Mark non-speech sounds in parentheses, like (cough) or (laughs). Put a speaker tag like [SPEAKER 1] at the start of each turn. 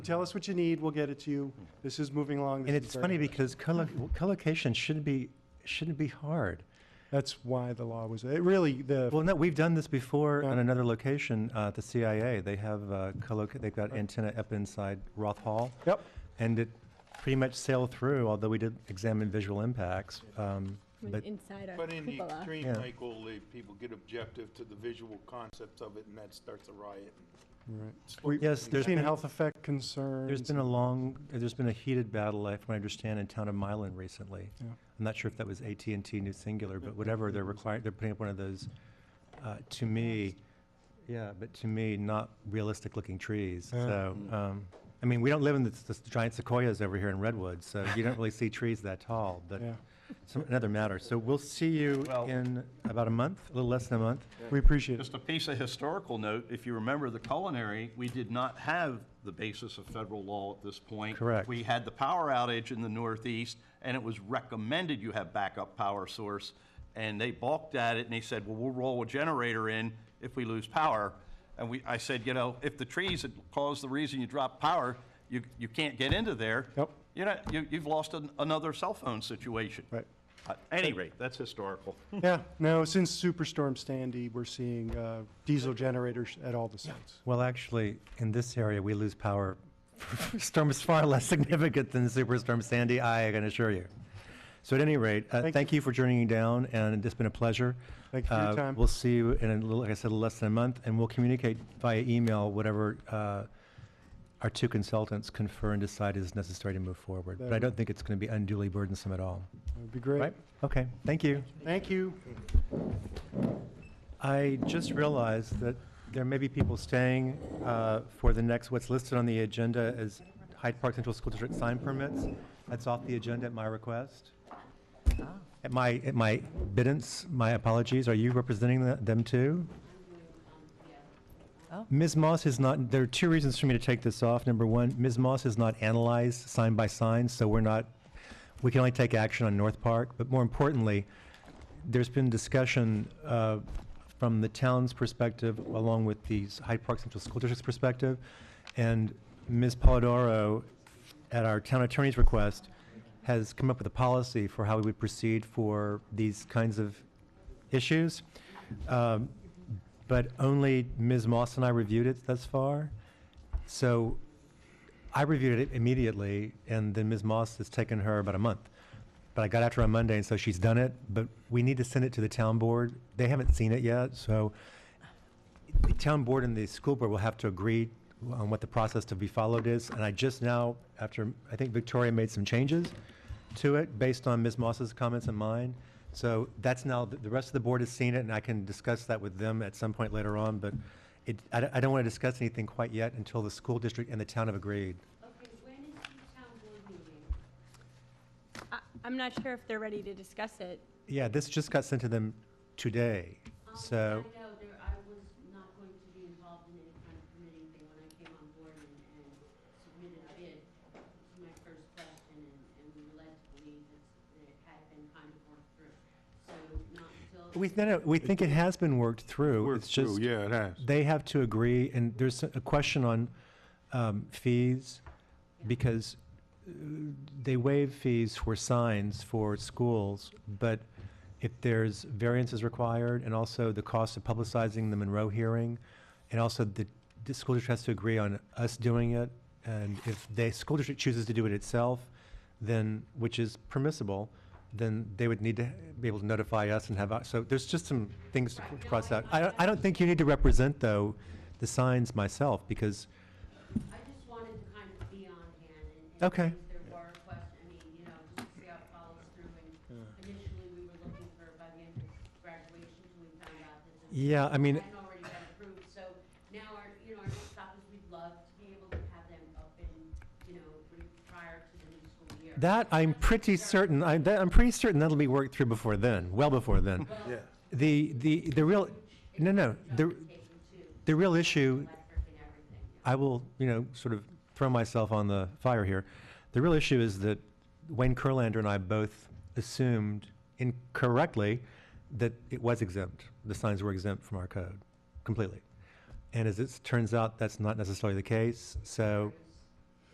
[SPEAKER 1] Tell us what you need, we'll get it to you. This is moving along. This
[SPEAKER 2] And
[SPEAKER 1] is
[SPEAKER 2] it's
[SPEAKER 1] very
[SPEAKER 2] funny
[SPEAKER 1] good.
[SPEAKER 2] because collo- collocation shouldn't be, shouldn't be hard.
[SPEAKER 1] That's why the law was, it really, the,
[SPEAKER 2] Well, no, we've done this before
[SPEAKER 1] Yeah.
[SPEAKER 2] on another location, uh, at the CIA. They have, uh, colloc, they've got antenna up inside Roth Hall.
[SPEAKER 1] yep,
[SPEAKER 2] And it pretty much sailed through, although we did examine visual impacts. Um, but
[SPEAKER 3] Inside our
[SPEAKER 4] But in the
[SPEAKER 3] cupola.
[SPEAKER 4] extreme,
[SPEAKER 2] Yeah.
[SPEAKER 4] Michael, the people get objective to the visual concepts of it, and that starts a riot.
[SPEAKER 1] right.
[SPEAKER 4] We-
[SPEAKER 2] yes, there's
[SPEAKER 1] Seen
[SPEAKER 2] been,
[SPEAKER 1] health effect concerns.
[SPEAKER 2] there's been a long, there's been a heated battle, I- from what I understand, in town of Milan recently.
[SPEAKER 1] Yeah.
[SPEAKER 2] I'm not sure if that was AT&T New Singular, but whatever, they're required, they're putting up one of those, uh, to me, yeah, but to me, not realistic-looking trees,
[SPEAKER 1] Yeah. Mm.
[SPEAKER 2] so, um, I mean, we don't live in the the giant sequoias over here in Redwood, so you don't really see trees that tall, but
[SPEAKER 1] Yeah,
[SPEAKER 2] some, another matter. So we'll see you
[SPEAKER 5] Well-
[SPEAKER 2] in about a month, a little less than a month.
[SPEAKER 1] we appreciate it.
[SPEAKER 5] Just a piece of historical note, if you remember the culinary, we did not have the basis of federal law at this point.
[SPEAKER 2] Correct.
[SPEAKER 5] We had the power outage in the Northeast, and it was recommended you have backup power source. And they balked at it, and they said, well, we'll roll a generator in if we lose power. And we, I said, you know, if the trees had caused the reason you dropped power, you, you can't get into there.
[SPEAKER 1] Yep.
[SPEAKER 5] You're not, you, you've lost an- another cell phone situation.
[SPEAKER 1] Right.
[SPEAKER 5] At any rate, that's historical.
[SPEAKER 1] Yeah, no, since Superstorm Sandy, we're seeing uh, diesel generators at all the sites.
[SPEAKER 2] Well, actually, in this area, we lose power. (laughs) Storm is far less significant than Superstorm Sandy, I can assure you. So at any rate, uh,
[SPEAKER 1] Thank
[SPEAKER 2] thank you for joining down, and it's been a pleasure.
[SPEAKER 1] Thank you for your
[SPEAKER 2] Uh,
[SPEAKER 1] time.
[SPEAKER 2] We'll see you in, a little- like I said, less than a month, and we'll communicate via email whatever uh, our two consultants confer and decide is necessary to move forward. But I
[SPEAKER 1] That'd-
[SPEAKER 2] don't think it's going to be unduly burdensome at all.
[SPEAKER 1] That would be great.
[SPEAKER 2] Right? Okay, thank you.
[SPEAKER 1] Thank you.
[SPEAKER 2] I just realized that there may be people staying uh, for the next, what's listed on the agenda as Hyde Park Central School District sign permits. That's off the agenda at my request. At my, at my biddance, my apologies. Are you representing the- them too? Ms. Moss is not, there are two reasons for me to take this off. Number one, Ms. Moss has not analyzed sign by sign, so we're not, we can only take action on North Park. But more importantly, there's been discussion uh, from the town's perspective, along with the Hyde Park Central School District's perspective, and Ms. Polidoro, at our town attorney's request, has come up with a policy for how we would proceed for these kinds of issues. Um, But only Ms. Moss and I reviewed it thus far. So I reviewed it immediately, and then Ms. Moss has taken her about a month. But I got after her on Monday, and so she's done it. But we need to send it to the town board. They haven't seen it yet, so the town board and the school board will have to agree on what the process to be followed is. And I just now, after, I think Victoria made some changes to it based on Ms. Moss's comments and mine. So that's now, the the rest of the board has seen it, and I can discuss that with them at some point later on. But it, I, don't- I don't want to discuss anything quite yet until the school district and the town have agreed.
[SPEAKER 6] Okay, when is the town board meeting?
[SPEAKER 3] I- I'm not sure if they're ready to discuss it.
[SPEAKER 2] Yeah, this just got sent to them today,
[SPEAKER 6] Um,
[SPEAKER 2] so.
[SPEAKER 6] I know there, I was not going to be involved in any kind of permitting thing when I came on board and, and submitted a bid. It was my first question and, and we were led to believe that that it had been kind of worked through. So not until.
[SPEAKER 2] We, no, no, we think it has been worked through.
[SPEAKER 4] Worked
[SPEAKER 2] It's
[SPEAKER 4] through,
[SPEAKER 2] just,
[SPEAKER 4] yeah, it has.
[SPEAKER 2] they have to agree, and there's a question on um, fees, because uh, they waive fees for signs for schools, but if there's variances required, and also the cost of publicizing the Monroe hearing, and also the, the school district has to agree on us doing it, and if the school district chooses to do it itself, then, which is permissible, then they would need to be able to notify us and have, our- so there's just some things to cross out. I, I don't think you need to represent, though, the signs myself, because,
[SPEAKER 6] I just wanted to kind of be on hand and. and
[SPEAKER 2] Okay.
[SPEAKER 6] If there were questions, I mean, you know, just to see how it follows through. And initially, we were looking for by the end of graduation, and we found out that. the-
[SPEAKER 2] yeah, I mean,
[SPEAKER 6] Hadn't already been approved, so now our, you know, our next stop is we'd love to be able to have them up in, you know, re- prior to the new school year.
[SPEAKER 2] That I'm pretty certain, I, that, I'm pretty certain that'll be worked through before then, well before then.
[SPEAKER 4] Yeah.
[SPEAKER 2] The, the, the real, no, no, the,
[SPEAKER 6] Taken to
[SPEAKER 2] the real issue,
[SPEAKER 6] electric and everything.
[SPEAKER 2] I will, you know, sort of throw myself on the fire here. The real issue is that Wayne Kurlander and I both assumed incorrectly that it was exempt, the signs were exempt from our code completely. And as it turns out, that's not necessarily the case, so